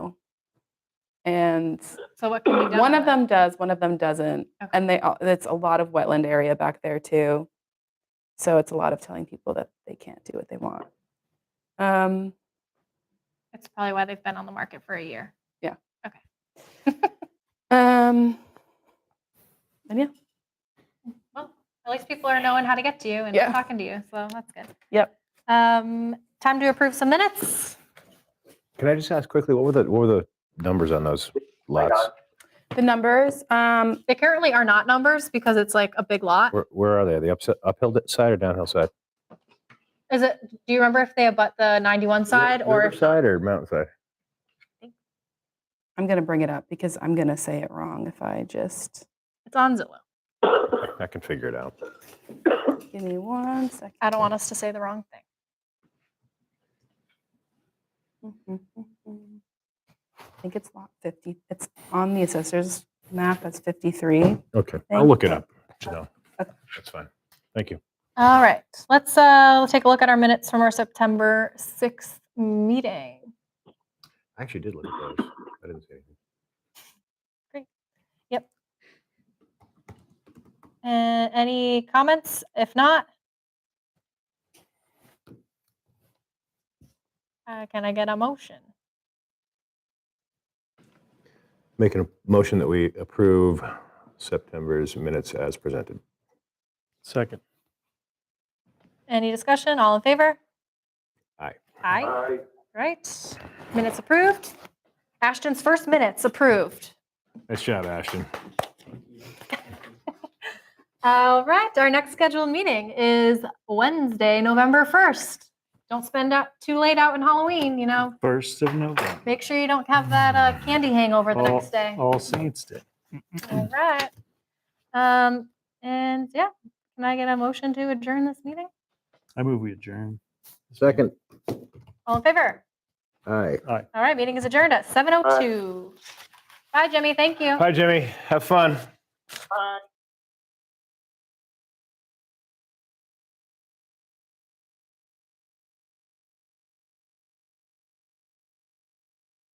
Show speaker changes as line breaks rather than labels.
and
So what can be done?
one
with
of
it?
them does, one of them doesn't,
Okay.
and they all, it's a lot of wetland area back there too. So it's a lot of telling people that they can't do what they want. Um,
That's probably why they've been on the market for a year.
um,
Well, at least people are knowing how to get to you and
Yeah.
talking to you, so that's good.
Yep.
Um, time to approve some minutes.
Can I just ask quickly, what were the, what were the numbers on those lots?
the numbers, um,
They currently are not numbers because it's like a big lot.
Where, where are they? The upset, uphill side or downhill side?
Is it? Do you remember if they abut the 91 side or if
Side or mountain side?
I'm gonna bring it up because I'm gonna say it wrong if I just
it's on Zillow?
I can figure it out.
give me one second.
I don't want us to say the wrong thing.
I think it's lot 50. It's on the assessor's map. That's 53.
Okay,
Thank
I'll look it
you.
up. No,
Okay.
that's fine. Thank you.
All right, let's uh take a look at our minutes from our September 6th meeting.
I actually did look at those. I didn't see anything.
Uh, any comments? If not, uh, can I get a motion?
Making a motion that we approve September's minutes as presented.
Second.
Any discussion? All in favor?
Aye.
Aye. Right. Minutes approved. Ashton's first minutes approved.
Nice job, Ashton.
All right. Our next scheduled meeting is Wednesday, November 1st. Don't spend out too late out in Halloween, you know.
First of November.
Make sure you don't have that uh, candy hangover the
All-
next day.
All Saints Day.
All right. Um, and yeah, can I get a motion to adjourn this meeting?
I move we adjourn.
Second,
All in favor?
aye.
All right, meeting is adjourned at 7:02. Bye, Jimmy. Thank you.
Hi, Jimmy. Have fun.